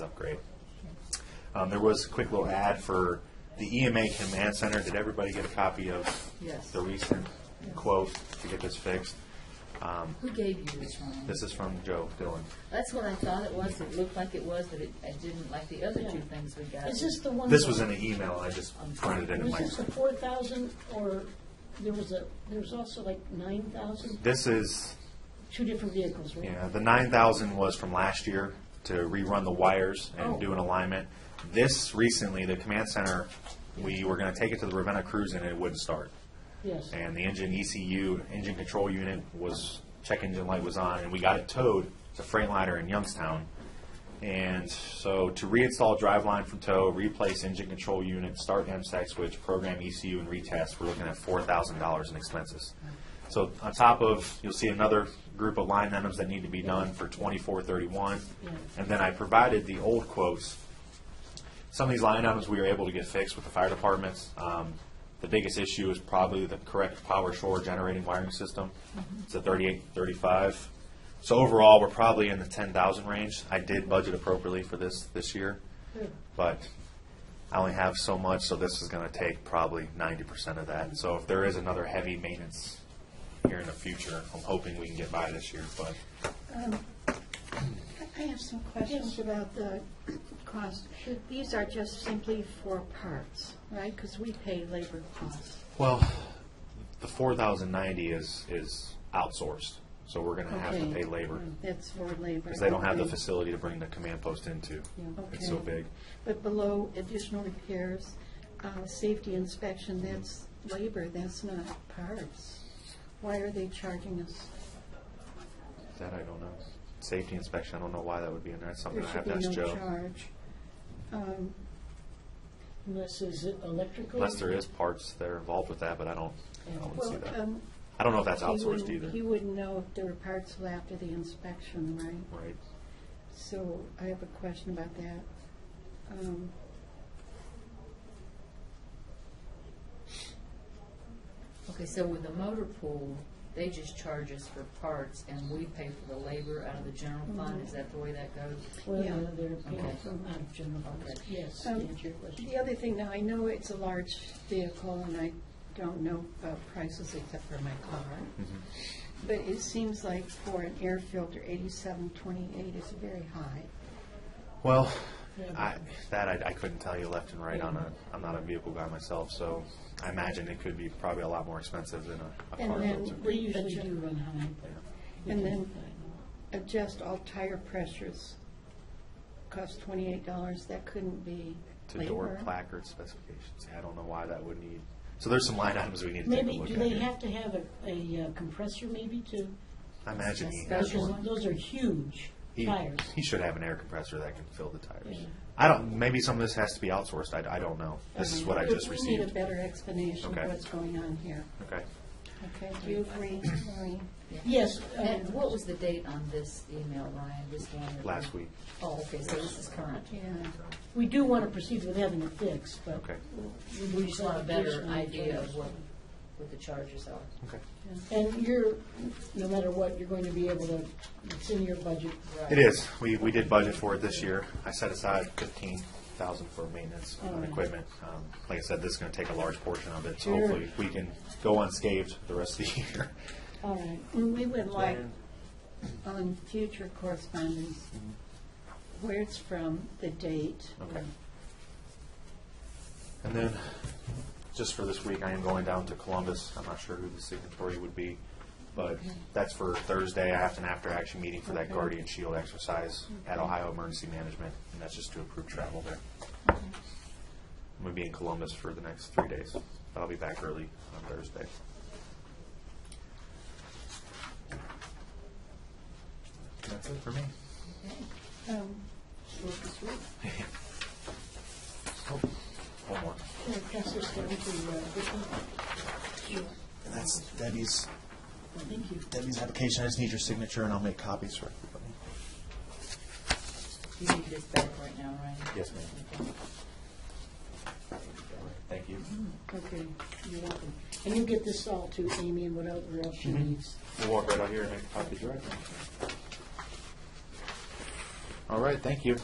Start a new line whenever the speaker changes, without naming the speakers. upgrade. Um, there was a quick little ad for the EMA Command Center. Did everybody get a copy of
Yes.
the recent quote to get this fixed?
Who gave you this one?
This is from Joe Dillon.
That's what I thought it was. It looked like it was, but it, I didn't like the other two things we got.
Is this the one?
This was in an email. I just printed it in
Um, Was
my.
this the four thousand, or there was a, there was also like nine thousand?
This is
Two different vehicles, right?
Yeah, the nine thousand was from last year to rerun the wires and
Oh.
do an alignment. This recently, the command center, we were gonna take it to the Ravenna cruise and it wouldn't start.
Yes.
And the engine ECU, engine control unit was, check engine light was on and we got it towed to Freightliner in Youngstown. And so to reinstall driveline from tow, replace engine control unit, start MSAC switch, program ECU and retest, we're looking at four thousand dollars in expenses. So on top of, you'll see another group of line items that need to be done for twenty-four thirty-one. And then I provided the old quotes. Some of these line items we were able to get fixed with the fire departments. Um, the biggest issue is probably the correct power shore generating wiring system. It's a thirty-eight, thirty-five. So overall, we're probably in the ten thousand range. I did budget appropriately for this, this year. But I only have so much, so this is gonna take probably ninety percent of that. So if there is another heavy maintenance here in the future, I'm hoping we can get by this year, but
I have some questions about the cost. These are just simply for parts, right? Because we pay labor costs.
Well, the four thousand ninety is, is outsourced, so we're gonna have to
Okay. Mm.
pay labor,
That's for labor.
because they don't have the
Okay.
facility to bring the command post into. It's so
Okay.
big.
But below additional repairs, uh, safety inspection, that's labor, that's not parts. Why are they charging us?
That I don't know. Safety inspection, I don't know why that would be in there, that's something
There
I
should
have
be
to ask
no
Joe.
charge. Um,
And This is electrical?
Unless there is parts that are involved with that, but I don't, I don't see
Well,
that.
um,
I don't know if that's
he
outsourced
wouldn't-
either,
He wouldn't know if there were parts left after the inspection, right?
right?
So I have a question about that. Um,
Okay, so with the motor pool, they just charge us for parts and we pay for the labor out of the general fund. Is that the way that goes?
Well,
Yeah.
no, they're
Okay.
paid from out of general funds. Yes, to
Um,
answer your question.
The other thing, now, I know it's a large vehicle, and I don't know about prices except for my car,
Mm-hmm.
but it seems like for an air filter, eighty-seven twenty-eight is very high.
Well, I, that I, I couldn't tell you left and right on a, I'm not a vehicle guy myself, so I imagine it could be probably a lot more expensive than a, a
And
car
then
filter.
We
we
usually
adju-
do run high, but. we
And
can
then-
Mm-hmm.
find out.
Adjust all tire pressures, cost twenty-eight dollars, that couldn't be
to door
labor.
placard specifications. I don't know why that would need, so there's some line items we need to take a
Maybe,
look
do
at.
they
here.
have to have a, a uh, compressor maybe too?
I imagine he has
Because
one.
those are huge
He-
tires.
He should have an air compressor that can fill the tires.
Yeah.
I don't, maybe some of this has to be outsourced, I, I don't know. This is what I
We-
just
We need a
received.
better explanation
Okay.
of what's going on here.
Okay.
Okay, do you agree, Maureen?
Yes, uh,
And what was the date on this email, Ryan? This one? that-
Last week.
Oh, okay, so this is current.
Yeah.
we do want to proceed with having it fixed, but.
Okay.
We just want a better
Additional
idea of
information.
what, what the charges are.
Okay.
And you're, no matter what, you're going to be able to, it's in your budget.
It is. We, we did budget for it this year. I set aside fifteen thousand for maintenance on equipment. Um, Like I said, this is gonna take a large portion of it, so
Sure.
hopefully we can go unscathed the rest of the year.
All right.
And we would like, on future correspondence, where it's from, the date.
Okay. And then, just for this week, I am going down to Columbus. I'm not sure who the signatory would be, but that's for Thursday. I have an after-action meeting for that
Okay.
Guardian Shield exercise at Ohio Emergency Management, and that's just to approve travel there. I'm gonna be in Columbus for the next three days, but I'll be back early on Thursday. That's it for me.
Um,
Oh, One more.
Can I pass this down to, uh, Vicki?
And that's Debbie's
Thank you.
Debbie's application, I just need your signature and I'll make copies for everybody.
You need this back right now, Ryan?
Yes, ma'am.
Okay.
Thank you.
Okay, you're welcome. And you get this all to Amy and whatever else she
Mm-hmm.
needs.
We'll walk right out here and make copies right now. All right, thank you.